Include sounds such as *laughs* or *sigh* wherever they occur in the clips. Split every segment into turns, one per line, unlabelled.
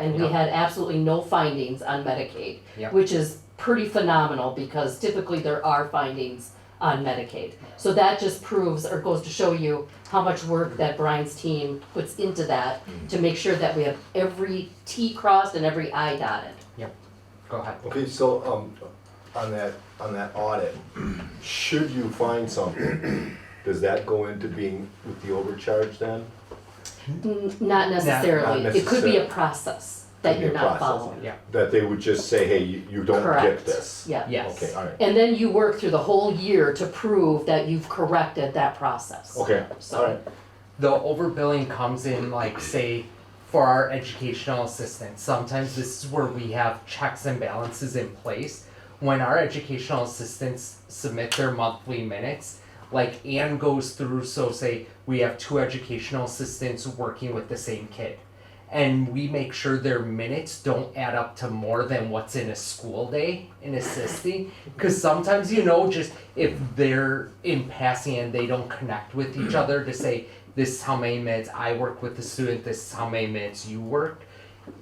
and we
Yeah.
had absolutely no findings on Medicaid,
Yeah.
which is pretty phenomenal because typically there are findings on Medicaid. So that just proves or goes to show you how much work that Brian's team puts into that
Mm.
to make sure that we have every T crossed and every I dotted.
Go ahead.
Okay, so, um, on that, on that audit, should you find something, does that go into being with the overcharge then?
N- Not necessarily,
Not
it could be a
necessarily.
process that
Could be
you're
a
not
process.
following.
Yeah.
That they would just say, hey, you, you don't get this?
Correct, yeah.
Yes.
Okay, alright,
And then you work through the whole year to prove that you've corrected that process.
okay,
So-
alright,
The overbilling comes in like say for our educational assistance. Sometimes this is where we have checks and balances in place. When our educational assistants submit their monthly minutes, like Anne goes through, so say we have two educational assistants working with the same kid. And we make sure their minutes don't add up to more than what's in a school day in assisting. Because sometimes, you know, just if they're in passing and they don't connect with each other to say, this is how many minutes I work with the student, this is how many minutes you work.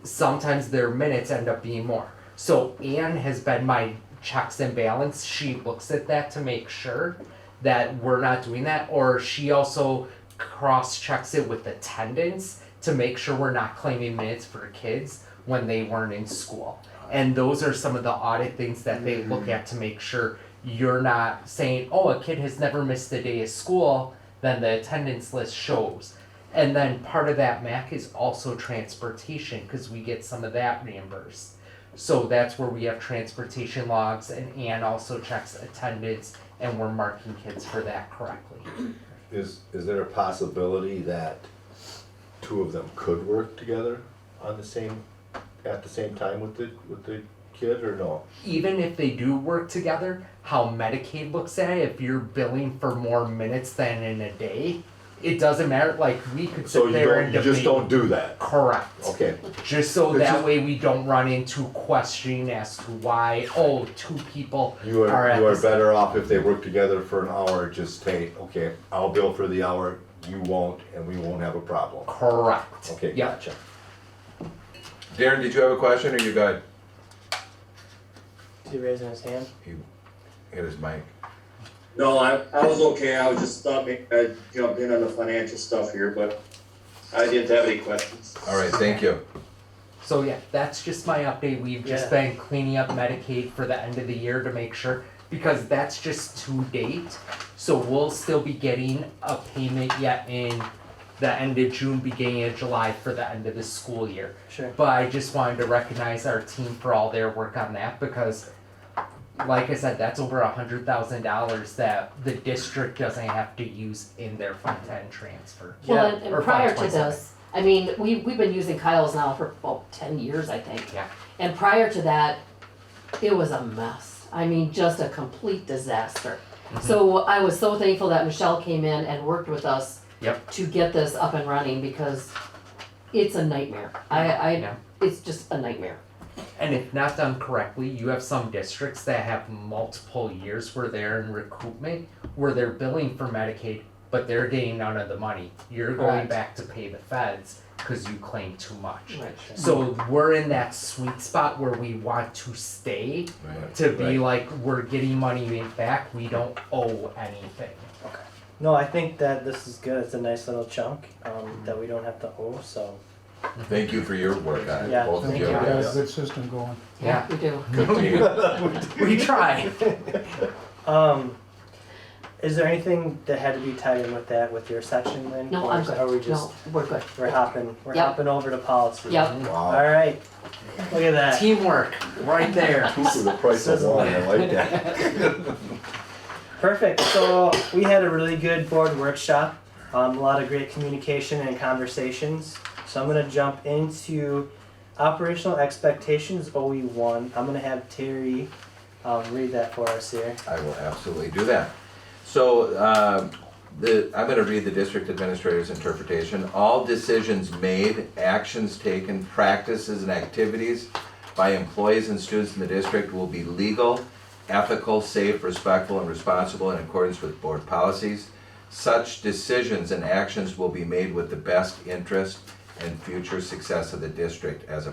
Sometimes their minutes end up being more. So Anne has been my checks and balance. She looks at that to make sure that we're not doing that, or she also cross checks it with attendance to make sure we're not claiming minutes for kids when they weren't in school. And those are some of the audit things that they look at to make sure you're not saying, oh, a kid has never missed a day of school, then the attendance list shows. And then part of that MAC is also transportation because we get some of that reimbursed. So that's where we have transportation logs and Ann also checks attendance and we're marking kids for that correctly.
is, is there a possibility that two of them could work together on the same, at the same time with the, with the kid, or no?
Even if they do work together, how Medicaid looks at it, if you're billing for more minutes than in a day, it doesn't matter, like we could
So
sit
you
there
don't,
and
you
debate.
just don't do that?
Correct.
Okay,
Just so
It's
that
just-
way we don't run into questioning as to why, oh, two people
you
are
are,
at
you are
the same
better off if they work together for an hour, just say, okay, I'll bill for the hour, you won't, and we won't have a problem.
Correct.
Okay,
Yep.
gotcha.
Darren, did you have a question or you good?
Is he raising his hand?
He hit his mic.
No, I, I was okay, I was just thought maybe I'd jump in on the financial stuff here, but I didn't have any questions.
All right, thank you.
So yeah, that's just my update. We've just
Yeah.
been cleaning up Medicaid for the end of the year to make sure because that's just to date. So we'll still be getting a payment yet in the end of June, beginning of July for the end of the school year.
Sure.
But I just wanted to recognize our team for all their work on that because like I said, that's over a hundred thousand dollars that the district doesn't have to use in their fund ten transfer.
Well,
Yeah,
and-
or
and prior to
527.
this, I mean, we, we've been using Kyle's now for about ten years, I think.
Yeah.
And prior to that, it was a mess. I mean, just a complete disaster.
Mm-hmm.
So I was so thankful that Michelle came in and worked with us
Yep.
to get this up and running because it's a nightmare. I, I,
Yeah.
it's just a nightmare.
And if not done correctly, you have some districts that have multiple years where they're in recoupment, where they're billing for Medicaid, but they're getting none of the money. You're going
Correct.
back to pay the feds because you claim too much.
Right.
So we're in that sweet spot where we want to stay to be like, we're getting money in back, we don't owe anything.
No, I think that this is good. It's a nice little chunk um, that we don't have to owe. So
Thank you for your work on it,
Yeah,
both of
thank
you.
you.
We got a
Yes.
good system going.
Yeah,
We
*laughs*
do.
Continue.
*laughs*
we try.
um, is there anything that had to be tied in with that with your section, Lynn?
No,
Or
I'm
Are we
good. No,
just
we're good.
we're hopping we're
Yep.
hopping over to policy?
Yep.
All
Wow,
right. Look at that.
Teamwork, right there.
two for the price of one, I like that.
Perfect. So we had a really good board workshop, um, a lot of great communication and conversations. So I'm gonna jump into operational expectations OE one. I'm gonna have Terry um, read that for us here.
I will absolutely do that. So, uh, the, I'm gonna read the district administrator's interpretation. All decisions made, actions taken, practices and activities by employees and students in the district will be legal, ethical, safe, respectful, and responsible in accordance with board policies. Such decisions and actions will be made with the best interest and future success of the district as a